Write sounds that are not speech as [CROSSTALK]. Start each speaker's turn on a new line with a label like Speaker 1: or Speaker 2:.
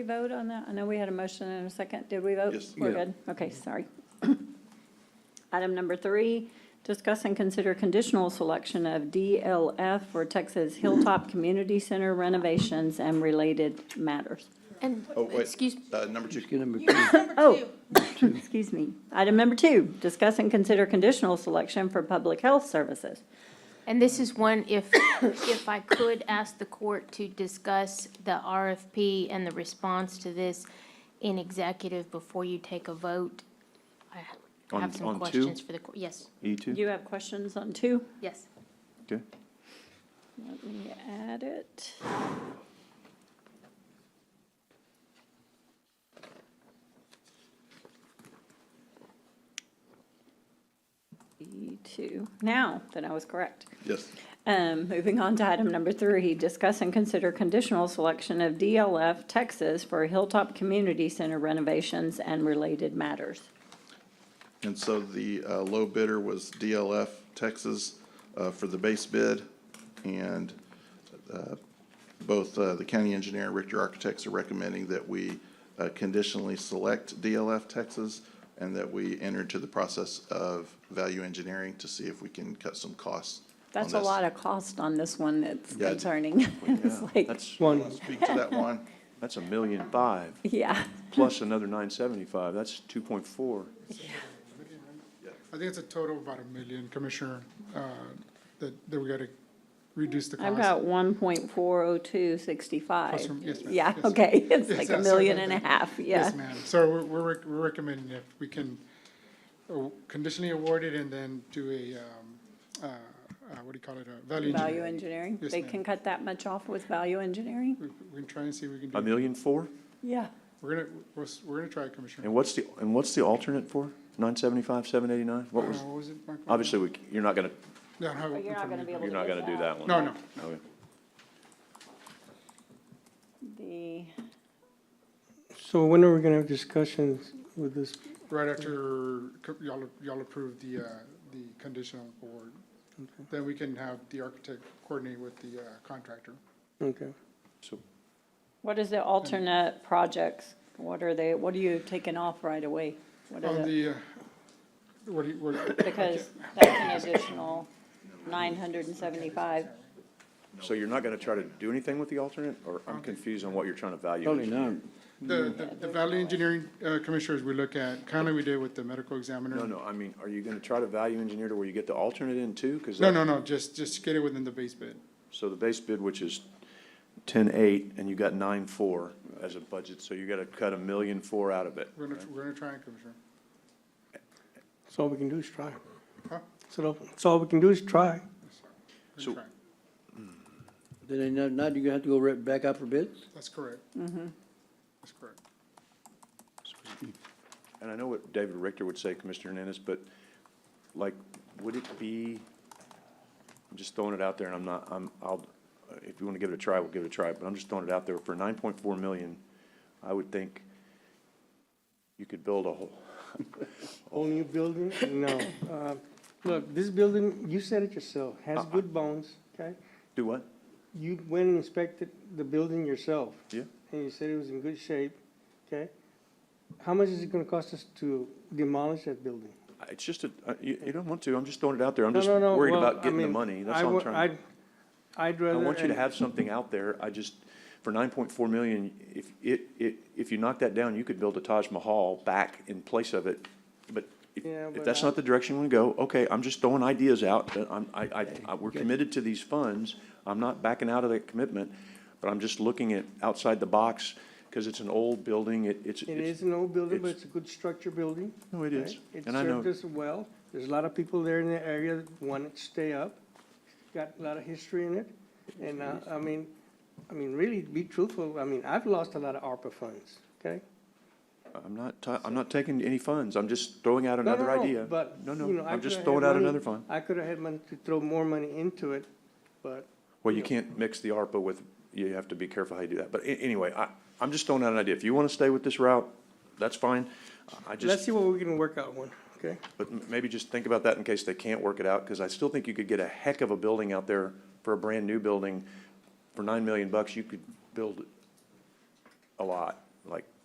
Speaker 1: we vote on that? I know we had a motion and a second. Did we vote?
Speaker 2: Yes.
Speaker 1: We're
Speaker 3: Yeah.
Speaker 1: good? Okay, sorry. [COUGHS] Item number three, discuss and consider conditional selection of DLF for Texas Hilltop Community Center renovations and related matters.
Speaker 4: And,
Speaker 2: Oh, wait.
Speaker 4: excuse,
Speaker 2: Uh, number two,
Speaker 3: Just get number two.
Speaker 1: Oh, [COUGHS] excuse me. Item number two, discuss and consider conditional selection for public health services.
Speaker 4: and this is one, if, if I could ask the court to discuss the RFP and the response to this in executive before you take a vote. I
Speaker 5: On-
Speaker 4: have some
Speaker 5: on two?
Speaker 4: questions for the, cour- yes,
Speaker 1: Do
Speaker 5: E two?
Speaker 1: you have questions on two?
Speaker 4: yes.
Speaker 5: Okay.
Speaker 1: Let me add it. E2, E now that I was correct.
Speaker 2: yes.
Speaker 1: Um, moving on to item number three, discuss and consider conditional selection of DLF Texas for Hilltop Community Center renovations and related matters.
Speaker 2: And so the uh, low bidder was DLF Texas uh, for the base bid. And uh, both uh, the county engineer and Richter Architects are recommending that we uh, conditionally select DLF Texas and that we enter into the process of value engineering to see if we can cut some costs on
Speaker 1: That's a
Speaker 2: this.
Speaker 1: lot of cost on this one that's
Speaker 2: Yeah.
Speaker 1: concerning. [LAUGHS] It's like,
Speaker 5: That's,
Speaker 3: One,
Speaker 2: Speak to that one.
Speaker 5: that's a million five,
Speaker 1: yeah. [LAUGHS]
Speaker 5: plus another nine seventy-five, that's two point four.
Speaker 6: I think it's a total of about a million, Commissioner, uh, that, that we gotta reduce the cost.
Speaker 1: I've got one point four oh two sixty-five.
Speaker 6: Plus or- yes, ma'am.
Speaker 1: Yeah,
Speaker 6: Yes.
Speaker 1: okay, [LAUGHS] it's
Speaker 6: Yes,
Speaker 1: like a
Speaker 6: sorry
Speaker 1: million
Speaker 6: about
Speaker 1: and a
Speaker 6: that.
Speaker 1: half, yeah.
Speaker 6: Yes, ma'am. So we're, we're rec- we're recommending if we can uh, conditionally award it and then do a, um, uh, uh, what do you call it, a value
Speaker 1: Value
Speaker 6: engineering.
Speaker 1: engineering,
Speaker 6: Yes,
Speaker 1: they
Speaker 6: ma'am.
Speaker 1: can cut that much off with value engineering?
Speaker 6: We we can try and see if we can do.
Speaker 5: A million four?
Speaker 1: Yeah.
Speaker 6: We're gonna, we're, s- we're gonna try, it, Commissioner.
Speaker 5: And what's the, and what's the alternate for? Nine seventy-five, seven eighty-nine? What was,
Speaker 6: Uh, What was it, Michael?
Speaker 5: obviously, we, you're not gonna,
Speaker 6: No, I don't have it
Speaker 1: But you're
Speaker 6: in
Speaker 1: not
Speaker 6: front
Speaker 1: gonna
Speaker 6: of
Speaker 1: be
Speaker 6: me.
Speaker 1: able to.
Speaker 5: you're not
Speaker 1: get
Speaker 5: gonna do that one.
Speaker 6: No, no,
Speaker 5: Okay.
Speaker 1: The,
Speaker 3: so when are we gonna have discussions with this?
Speaker 6: Right after co- y'all, y'all approve the, uh, the conditional award, then we can have the architect coordinate with the uh, contractor.
Speaker 3: Okay.
Speaker 5: So,
Speaker 1: what is the alternate projects? What are they, what are you taking off right away? What
Speaker 6: On
Speaker 1: is it?
Speaker 6: the, uh, what do you, what,
Speaker 1: Because that's an additional nine hundred and seventy-five.
Speaker 5: so you're not gonna try to do anything with the alternate, or I'm confused on what you're trying to value?
Speaker 3: Probably
Speaker 5: engineer.
Speaker 3: not.
Speaker 6: the, the- the value engineering uh, commissioners, we look at, kind of we did with the medical examiner.
Speaker 5: No, no, I mean, are you gonna try to value engineer to where you get the alternate in too? 'Cause
Speaker 6: No,
Speaker 5: that-
Speaker 6: no, no, just, just get it within the base bid.
Speaker 5: So the base bid, which is ten-eight, and you got nine-four as a budget, so you gotta cut a million four out of it.
Speaker 6: We're gonna, we're gonna try it, Commissioner.
Speaker 3: That's all we can do is try.
Speaker 6: Huh?
Speaker 3: So that's all we can do is try.
Speaker 6: We're
Speaker 5: So-
Speaker 6: gonna try it.
Speaker 7: Then now, now you have to go right back out for bids?
Speaker 6: That's correct. That's correct.
Speaker 5: And I know what David Richter would say, Commissioner Hernandez, but like, would it be, I'm just throwing it out there and I'm not, I'm, I'll, if you want to give it a try, we'll give it a try, but I'm just throwing it out there. For nine point four million, I would think you could build a whole,
Speaker 3: Whole new building? No. Uh, Look, this building, you said it yourself, has good bones, okay?
Speaker 5: do what?
Speaker 3: You went and inspected the building yourself.
Speaker 5: Yeah.
Speaker 3: And you said it was in good shape, okay? How much is it gonna cost us to demolish that building?
Speaker 5: It's just a, uh, you, you don't want to, I'm just throwing it out there. I'm
Speaker 3: No,
Speaker 5: just
Speaker 3: no, no,
Speaker 5: worried
Speaker 3: well,
Speaker 5: about
Speaker 3: I
Speaker 5: getting the
Speaker 3: mean,
Speaker 5: money. That's
Speaker 3: I
Speaker 5: all I'm
Speaker 3: wa-
Speaker 5: trying.
Speaker 3: I'd- I'd
Speaker 5: I
Speaker 3: rather.
Speaker 5: want you to
Speaker 3: and-
Speaker 5: have something out there. I just, for nine point four million, if, it, it, if you knock that down, you could build a Taj Mahal back in place of it. But if,
Speaker 3: Yeah,
Speaker 5: if
Speaker 3: but
Speaker 5: that's
Speaker 3: I-
Speaker 5: not the direction you want to go, okay, I'm just throwing ideas out. Uh, I'm, I, I, I- we're committed to these funds. I'm not backing out of that commitment, but I'm just looking at outside the box because it's an old building. It, it's,
Speaker 3: It
Speaker 5: it's,
Speaker 3: is an old building, but
Speaker 5: it's-
Speaker 3: it's a good structure building.
Speaker 5: no, it is.
Speaker 3: It
Speaker 5: And I know,
Speaker 3: served us well. There's a lot of people there in the area that want it to stay up. Got a lot of history in it. And uh, I mean, I mean, really, to be truthful, I mean, I've lost a lot of ARPA funds, okay?
Speaker 5: I'm not, ta- I'm not taking any funds. I'm just throwing out
Speaker 3: No, no,
Speaker 5: another
Speaker 3: no,
Speaker 5: idea.
Speaker 3: But,
Speaker 5: No,
Speaker 3: you
Speaker 5: no,
Speaker 3: know,
Speaker 5: I'm
Speaker 3: I coulda
Speaker 5: just
Speaker 3: had
Speaker 5: throwing out
Speaker 3: money-
Speaker 5: another fund.
Speaker 3: I could have had money to throw more money into it, but
Speaker 5: Well, you can't mix the ARPA with, you have to be careful how you do that. But a- anyway, I, I'm just throwing out an idea. If you want to stay with this route, that's fine. I
Speaker 3: let's
Speaker 5: just,
Speaker 3: see what we can work out one, okay?
Speaker 5: but m- maybe just think about that in case they can't work it out, because I still think you could get a heck of a building out there for a brand-new building. For nine million bucks, you could build a lot. like